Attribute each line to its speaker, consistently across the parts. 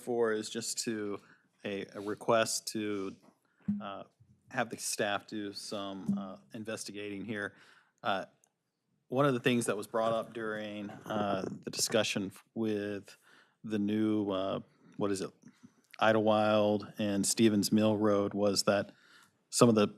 Speaker 1: four is just to, a, a request to uh, have the staff do some uh, investigating here. Uh, One of the things that was brought up during uh, the discussion with the new, uh, what is it, Idlewild and Stevens Mill Road was that some of the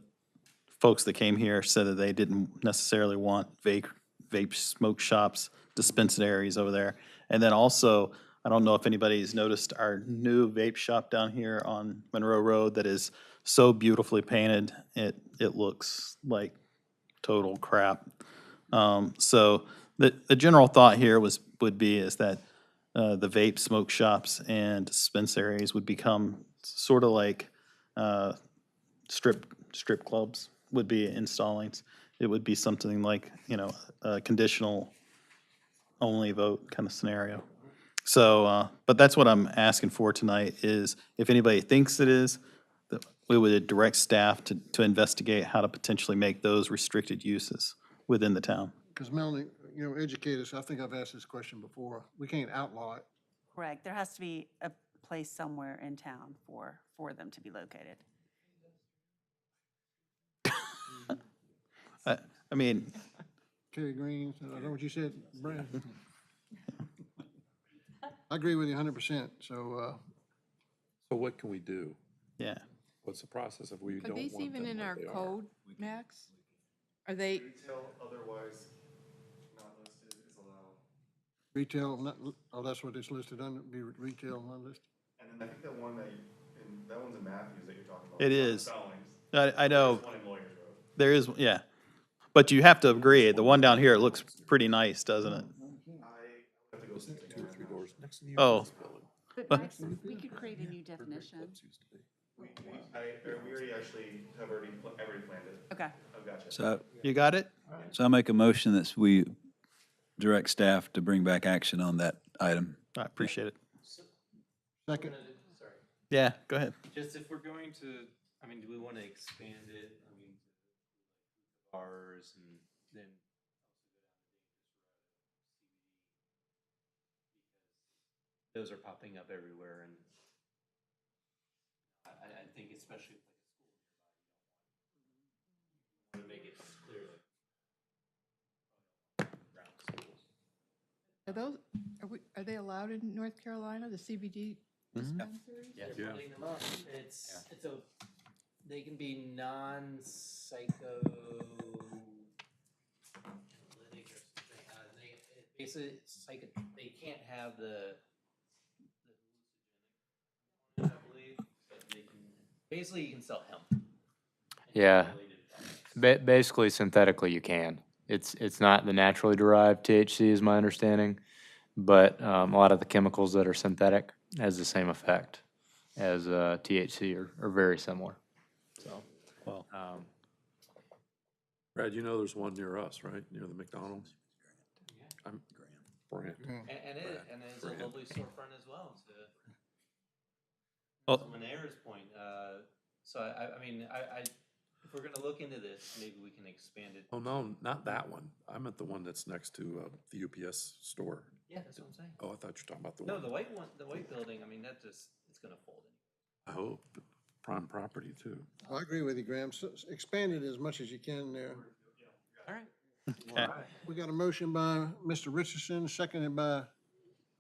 Speaker 1: folks that came here said that they didn't necessarily want vape, vape smoke shops, dispensaries over there. And then also, I don't know if anybody's noticed our new vape shop down here on Monroe Road that is so beautifully painted. It, it looks like total crap. Um, so the, the general thought here was, would be is that, uh, the vape smoke shops and dispensaries would become sort of like, uh, strip, strip clubs would be installing. It would be something like, you know, a conditional only vote kind of scenario. So, uh, but that's what I'm asking for tonight is if anybody thinks it is, that we would direct staff to, to investigate how to potentially make those restricted uses within the town.
Speaker 2: Because Melanie, you know, educate us, I think I've asked this question before, we can't outlaw it.
Speaker 3: Correct. There has to be a place somewhere in town for, for them to be located.
Speaker 1: I, I mean,
Speaker 2: Kerry Green, I know what you said, Brad. I agree with you hundred percent, so, uh,
Speaker 4: So what can we do?
Speaker 1: yeah,
Speaker 4: What's the process if we
Speaker 5: Are
Speaker 4: don't want
Speaker 5: these
Speaker 4: them?
Speaker 5: even in
Speaker 4: what
Speaker 5: our
Speaker 4: they are?
Speaker 5: code, Max? Are they,
Speaker 6: Retail otherwise not listed is allowed.
Speaker 2: retail, not, oh, that's what it's listed under, be retail, not listed.
Speaker 6: And then I think the one that, you- and that one's in Matthews that you're talking about.
Speaker 1: It
Speaker 6: It's
Speaker 1: is.
Speaker 6: not Stallings.
Speaker 1: I, I
Speaker 7: Oh.
Speaker 1: know.
Speaker 6: There's one in Lawyers Road.
Speaker 1: There is, yeah. But you have to agree, the one down here looks pretty nice, doesn't it?
Speaker 4: Isn't it two or three doors next to the
Speaker 1: Oh.
Speaker 4: office building?
Speaker 3: But
Speaker 1: But-
Speaker 3: Max, we could create a new definition.
Speaker 4: Clubs used to be.
Speaker 6: We, we, I, or we already actually have already, pla- I already planned it.
Speaker 3: Okay.
Speaker 6: I've got you.
Speaker 8: So,
Speaker 1: You got it?
Speaker 8: so I make a motion that we direct staff to bring back action on that item.
Speaker 1: I appreciate it.
Speaker 2: Second,
Speaker 1: Yeah, go ahead.
Speaker 9: Just if we're going to, I mean, do we want to expand it? I mean, bars and then. Those are popping up everywhere and I, I- I think especially if like a school. nearby, you don't want- want to make it clear like. around schools.
Speaker 5: are those, are we, are they allowed in North Carolina, the CBD dispensaries?
Speaker 9: Yeah,
Speaker 4: Yeah.
Speaker 9: they're putting them up. It's, it's a, they can be non-psycho. analytic or something, uh, They, it basically, it's like, a- they can't have the. the hallucinogenic, I believe, but they can- Basically, you can sell hemp. and
Speaker 7: Yeah.
Speaker 9: related products.
Speaker 7: Ba- basically, synthetically, you can. It's it's not the naturally derived THC, is my understanding, but um, a lot of the chemicals that are synthetic has the same effect as uh, THC or, or very similar. So,
Speaker 1: Well.
Speaker 7: um,
Speaker 4: Brad, you know there's one near us, right? Near the McDonald's? I'm, Grant.
Speaker 9: And, and it,
Speaker 4: Brand-
Speaker 9: and it's a
Speaker 4: brand.
Speaker 9: lovely storefront as well to.
Speaker 1: Well-
Speaker 9: From an heir's point, uh, so I, I, I mean, I, I, if we're gonna look into this, maybe we can expand it.
Speaker 4: Oh, no, not that one. I meant the one that's next to, uh, the UPS store.
Speaker 9: Yeah, that's what I'm saying.
Speaker 4: Oh, I thought you were talking about the
Speaker 9: No,
Speaker 4: one.
Speaker 9: the white one, the white building, I mean, that just, it's gonna fold.
Speaker 4: Oh, prime property too.
Speaker 2: I agree with you, Graham, S- s- expand it as much as you can there.
Speaker 9: All right.
Speaker 2: We got a motion by Mr. Richardson, seconded by,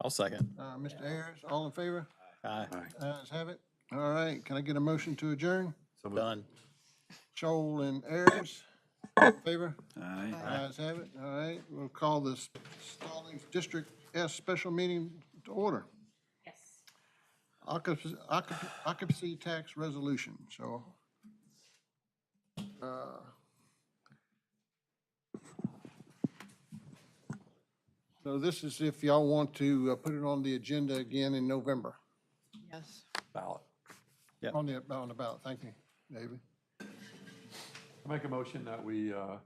Speaker 1: I'll second.
Speaker 2: uh, Mr. Ayers, all in favor?
Speaker 1: Aye,
Speaker 4: All right.
Speaker 2: Ayes have it, all right, can I get a motion to adjourn?
Speaker 4: So moved.
Speaker 1: done.
Speaker 2: Shoal and Ayers, all in favor?
Speaker 8: Aye.
Speaker 2: Ayes have it, all right, we'll call this Stallings District S special meeting to order.
Speaker 3: Yes.
Speaker 2: Occupancy, occup- occupancy tax resolution, so. uh, So this is if y'all want to uh, put it on the agenda again in November,
Speaker 5: Yes.
Speaker 4: Ballot.
Speaker 1: Yep.
Speaker 2: on the, on the ballot, thank you, David.
Speaker 4: I Make a motion that we uh,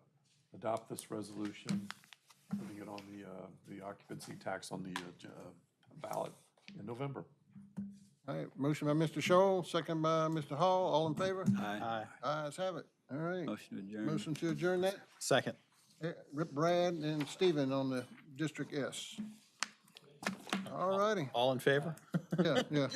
Speaker 4: adopt this resolution, putting it on the, uh, the occupancy tax on the uh, j- uh, ballot in November.
Speaker 2: All right, motion by Mr. Shoal, second by Mr. Hall, all in favor?
Speaker 8: Aye.
Speaker 1: Aye,
Speaker 2: Ayes have it, all right.
Speaker 8: Motion to adjourn.
Speaker 2: Motion to adjourn that,
Speaker 1: second.
Speaker 2: Eh, Rip Brad and Stephen on the District S. All righty.
Speaker 1: All in favor?
Speaker 2: Yeah, yeah.